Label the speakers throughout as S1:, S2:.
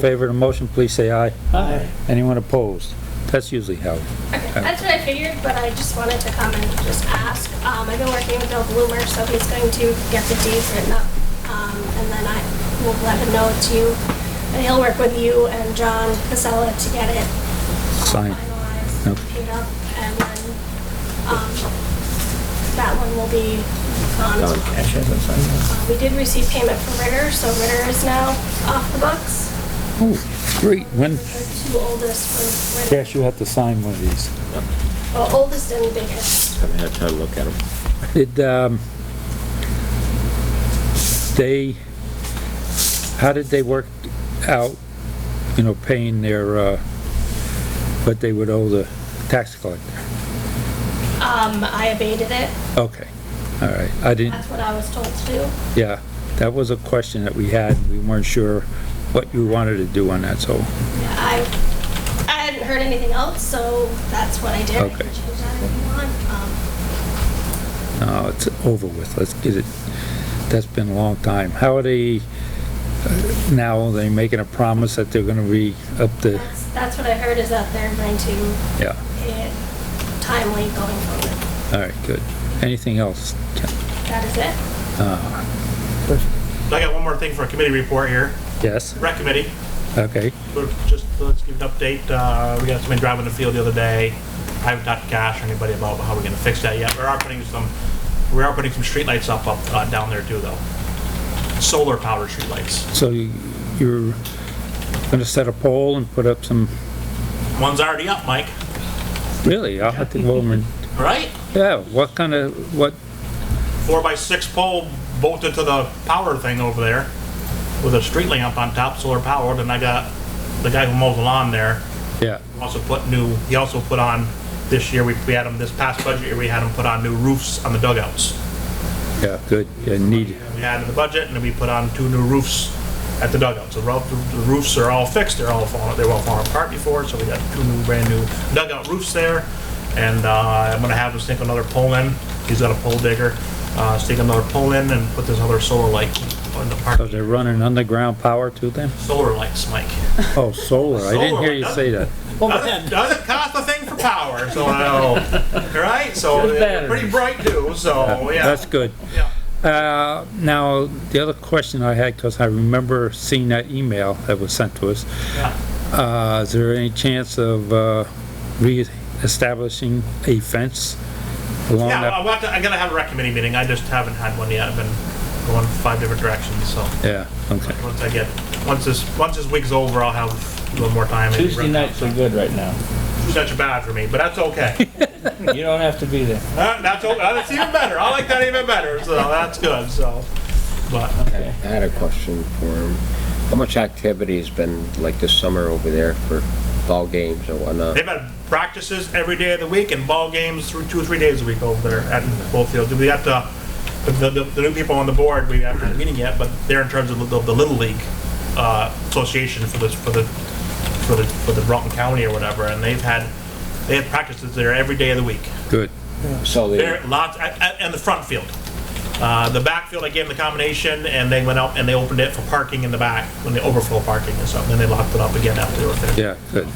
S1: favor of the motion, please say aye.
S2: Aye.
S1: Anyone opposed? That's usually how.
S3: That's what I figured, but I just wanted to come and just ask. Um, I've been working with Bill Bloomer, so he's going to get the deeds written up. Um, and then I will let him know it's you, and he'll work with you and John Casella to get it um,
S1: Signed. Yep.
S3: finalized, paid up, and then, um, that one will be gone as well.
S2: Cash hasn't signed that.
S3: Uh, We did receive payment from Ritter, so Ritter is now off the books.
S1: Oh, great. When,
S3: The two oldest were Ritter,
S1: Cash, you have to sign one of these.
S3: well, oldest and biggest.
S2: Haven't had time to look at them.
S1: Did, um, they, how did they work out, you know, paying their, uh, what they would owe the tax collector?
S3: Um, I abated it.
S1: Okay, all right. I didn't,
S3: That's what I was told to do.
S1: yeah, that was a question that we had. We weren't sure what you wanted to do on that, so,
S3: I, I hadn't heard anything else, so that's what I did. I can
S1: Okay.
S3: change that if you want. Um,
S1: no, it's over with. Let's get it. That's been a long time. How are they, uh, now, are they making a promise that they're gonna be up to,
S3: that's, that's what I heard is that they're going to
S1: yeah,
S3: pay it timely going forward.
S1: all right, good. Anything else? Ken?
S3: That is it.
S4: I got one more thing for a committee report here.
S1: Yes,
S4: Rec committee,
S1: okay.
S4: we're just, let's give an update. Uh, we got somebody driving the field the other day. I haven't talked to Cash or anybody about how we're gonna fix that yet. We are putting some, we are putting some streetlights up, up, uh, down there too though. Solar powered streetlights.
S1: So you- you're gonna set a pole and put up some,
S4: One's already up, Mike,
S1: really, I'll have to go over and,
S4: right?
S1: yeah, what kind of, what,
S4: Four by six pole bolted to the power thing over there with a street lamp on top, solar powered, and I got the guy who mows the lawn there
S1: yeah,
S4: also put new, he also put on, this year, we, we had him, this past budget year, we had him put on new roofs on the dugouts.
S1: yeah, good, yeah, need,
S4: We had in the budget, and then we put on two new roofs at the dugouts. The roof- the roofs are all fixed, they're all falling, they were all falling apart before, so we got two new, brand new dugout roofs there. And, uh, I'm gonna have him stick another pole in, he's got a pole digger, uh, stick another pole in and put this other solar light on the park.
S1: so they're running underground power to them?
S4: Solar lights, Mike.
S1: Oh, solar, I didn't hear you say that.
S4: Doesn't doesn't cost a thing for power, so, uh, right? So, they're pretty bright too, so, yeah.
S1: That's good.
S4: Yeah.
S1: Uh, now, the other question I had, because I remember seeing that email that was sent to us,
S4: Yeah.
S1: uh, is there any chance of, uh, reestablishing a fence along
S4: Yeah,
S1: that?
S4: I want to, I gotta have a rec committee meeting, I just haven't had one yet, I've been going five different directions, so,
S1: Yeah, okay.
S4: once I get, once this, once this week's over, I'll have a little more time. and-
S2: Tuesday nights are good right now.
S4: Such a bad for me, but that's okay.
S2: You don't have to be there.
S4: Uh, That's, o- uh, that's even better, I like that even better, so that's good, so, but, uh,
S5: I had a question for him. How much activity has been like this summer over there for ball games and whatnot?
S4: they've had practices every day of the week and ball games through two or three days a week over there at both fields. We got the, the, the- the new people on the board, we haven't had a meeting yet, but they're in terms of the, the Little League, uh, association for this, for the, for the, for the Broughton County or whatever, and they've had, they have practices there every day of the week.
S1: Good.
S5: So they,
S4: There, lots, at- at- and the front field. Uh, the back field, I gave them the combination, and they went out and they opened it for parking in the back, when they overflow parking and something, and they locked it up again after they were finished.
S1: Yeah, good.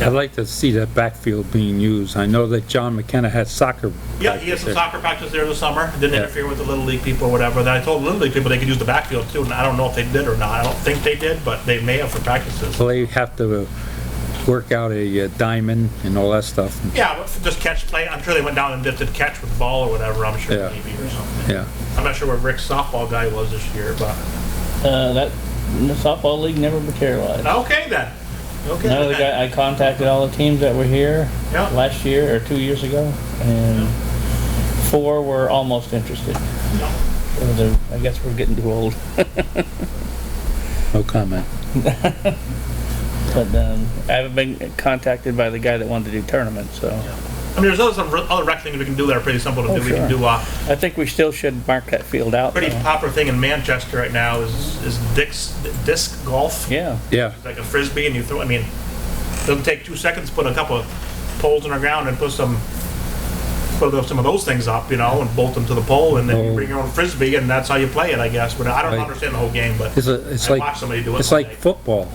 S1: I'd like to see that backfield being used. I know that John McKenna had soccer.
S4: Yeah, he had some
S1: practice
S4: soccer practice there this summer, didn't
S1: Yeah.
S4: interfere with the Little League people or whatever, then I told the Little League people they could use the backfield too, and I don't know if they did or not, I don't think they did, but they may have for practices.
S1: there. Well, they have to work out a uh, diamond and all that stuff.
S4: Yeah, but just catch play, I'm sure they went down and did the catch with the ball or whatever, I'm sure,
S1: Yeah.
S4: maybe or something.
S1: Yeah,
S4: I'm not sure where Rick's softball guy was this year, but,
S2: Uh, that, the softball league never materialized.
S4: okay then. Okay.
S2: Another
S4: then.
S2: guy, I contacted all the teams that were here
S4: Yeah.
S2: last year or two years ago, and four were almost interested.
S4: Yeah.
S2: So they're- I guess we're getting too old.
S1: no comment.
S2: But um, I haven't been contacted by the guy that wanted to do tournaments, so
S4: I mean, there's other some re- other rec things we can do that are pretty simple to
S2: Oh,
S4: do. We can
S2: sure.
S4: do a
S2: I think we still should mark that field out.
S4: pretty
S2: though.
S4: popular thing in Manchester right now is is disc disc golf.
S2: Yeah.
S1: Yeah,
S4: It's like a frisbee, and you throw. I mean, it doesn't take two seconds to put a couple of poles in the ground and put some put some of those things up, you know, and bolt them to the pole, and then you
S1: Oh.
S4: bring your own frisbee, and that's how you play it, I guess. But I don't
S1: Right.
S4: understand the whole game, but
S1: it's a, it's
S4: I
S1: like,
S4: watched somebody do it.
S1: it's
S4: one
S1: like
S4: day.
S1: football.